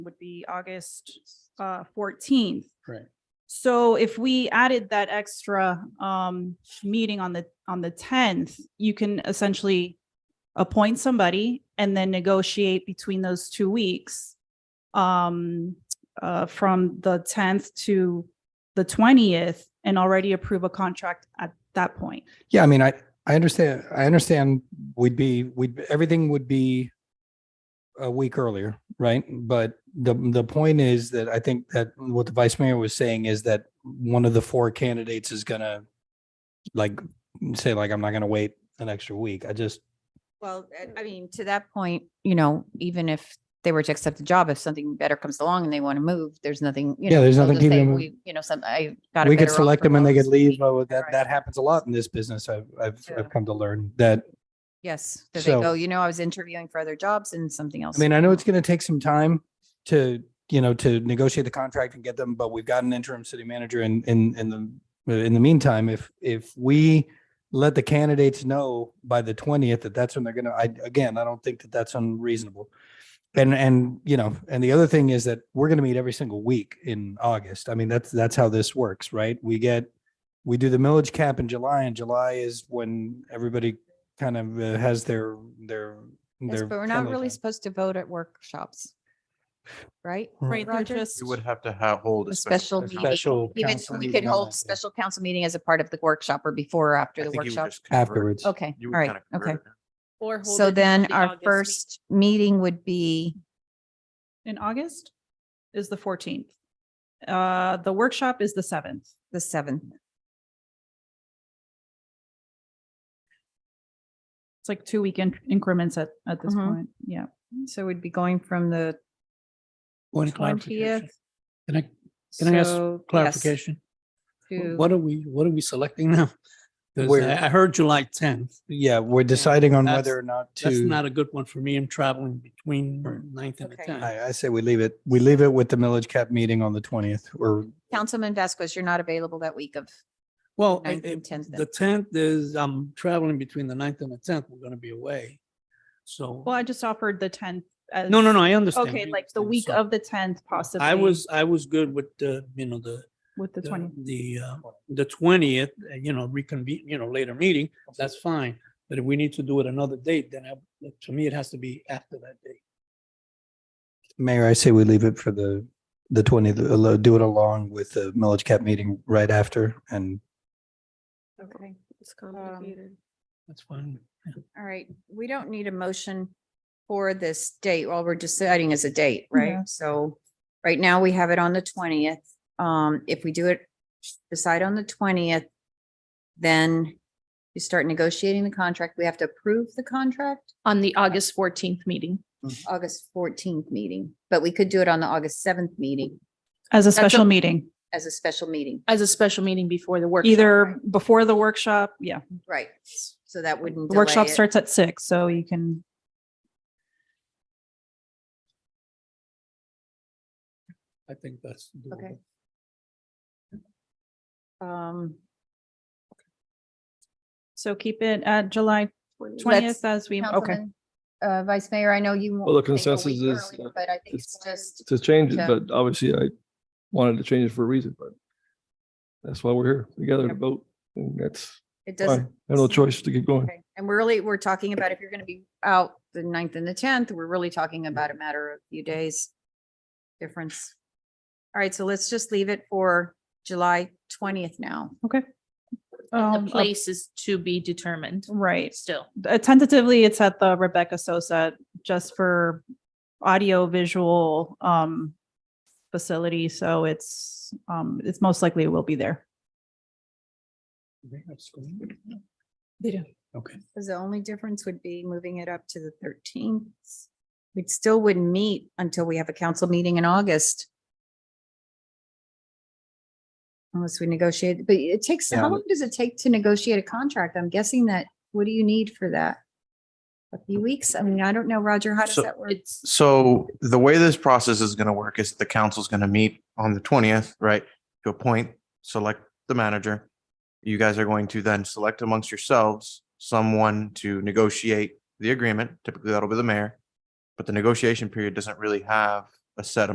would be August uh fourteenth. Right. So if we added that extra um meeting on the on the tenth, you can essentially appoint somebody and then negotiate between those two weeks um uh from the tenth to the twentieth and already approve a contract at that point. Yeah, I mean, I, I understand, I understand we'd be, we'd, everything would be a week earlier, right? But the, the point is that I think that what the vice mayor was saying is that one of the four candidates is gonna like, say like, I'm not gonna wait an extra week. I just, Well, eh, I- I mean, to that point, you know, even if they were to accept the job, if something better comes along and they want to move, there's nothing, you know. Yeah, there's they'll nothing just say, keeping them- "We- You know, some, I got. a we could better select offer them and they last could leave. week." Oh, that, Right. that happens a lot in this business. I've, I've, Yeah. I've come to learn that Yes, that they So- go, you know, I was interviewing for other jobs and something I else. mean, I came know up." it's going to take some time to, you know, to negotiate the contract and get them, but we've got an interim city manager in, in, in the, in the meantime, if, if we let the candidates know by the twentieth that that's when they're going to, I, again, I don't think that that's unreasonable. And, and, you know, and the other thing is that we're going to meet every single week in August. I mean, that's, that's how this works, right? We get, we do the millage cap in July and July is when everybody kind of uh, has their, their, Yes, their. But we're not friendly really time. supposed to vote at workshops. Right? Right, they're Roger? just You would have to ha- hold A a special special. meeting. special. Even, council we could meeting on hold that, yeah. special council meeting as a part of the workshop or before or after I the think you would workshop. just convert it. Afterwards. Okay, You all would right, kinda okay. convert it. Or hold So it then the our August meet- first meeting would be, in August is the fourteenth. Uh, the workshop is the seventh. the seventh. It's like two weekend increments at, at this Mhm. Mm-hmm. point. Yeah. So we'd be going from the One clarification. twentieth. Can I, Can I ask clarification? To, What are we, what are we selecting now? 'Cause We're- I I heard July tenth. Yeah, we're deciding on That's- whether or not That's not to, a good one for me. I'm traveling between Right. ninth and the Okay. tenth. I, I say we leave it, we leave it with the millage cap meeting on the twentieth or Councilman Vasquez, you're not available that week of, Well, Ninth I- I- and 10th then. the tenth is, I'm traveling between the ninth and the tenth. We're going to be away. So, Well, I just offered the tenth. no, no, no, I understand. Okay, I like the understand. week So of the tenth possibly. I was, I was good with the, you know, the, With the the, twentieth. the, uh, the twentieth, uh, you know, reconvene, you know, later meeting, that's fine. But if we need to do it another date, then I, to me, it has to be after that date. mayor, I say we leave it for the, the twentieth, uh, do it along with the millage cap meeting right after and Okay, it's Um, complicated. That's fine. all right, we don't need a motion for this date. All we're deciding is a date, right? So right now we have it on the twentieth. Um, if we do it, decide on the twentieth, then you start negotiating the contract. We have to approve the contract On the August fourteenth meeting. August fourteenth meeting, but we could do it on the August seventh meeting As a That's a- special meeting, as a special meeting. As a special meeting before the workshop. either before the workshop, yeah. Right, so that wouldn't. The workshop delay it. starts at six, so you can, I think that's. Okay. doable. Um, so keep it at July twentieth as we, okay. Councilman, Uh, Vice Mayor, I know you. Well, the want to take a consensus week is early, that But I think it's- it's just, to change it, Yeah. but obviously I wanted to change it for a reason, but that's why we're here together to Yep. vote. And that's, it fine. I have doesn't. no choice to keep going. okay. And we're really, we're talking about if you're going to be out the ninth and the tenth, we're really talking about a matter of a few days difference. All right, so let's just leave it for July twentieth now. Um, uh, The place is to be determined Right. still. Uh, Tentatively, it's at the Rebecca Sosa, just for audio visual, um, facility. So it's, um, it's most likely it will be there. They have screen? They do. Okay. 'Cause the only difference would be moving it up to the thirteenth. We still wouldn't meet until we have a council meeting in August. Unless we negotiate, but it takes, Yeah. how long does it take to negotiate a contract? I'm guessing that, what do you need for that? A few weeks? I mean, I don't know, Roger, how does So that work? It's So the way this process is going to work is the council's going to meet on the twentieth, right? To appoint, select the manager. You guys are going to then select amongst yourselves someone to negotiate the agreement. Typically, that'll be the mayor. But the negotiation period doesn't really have a set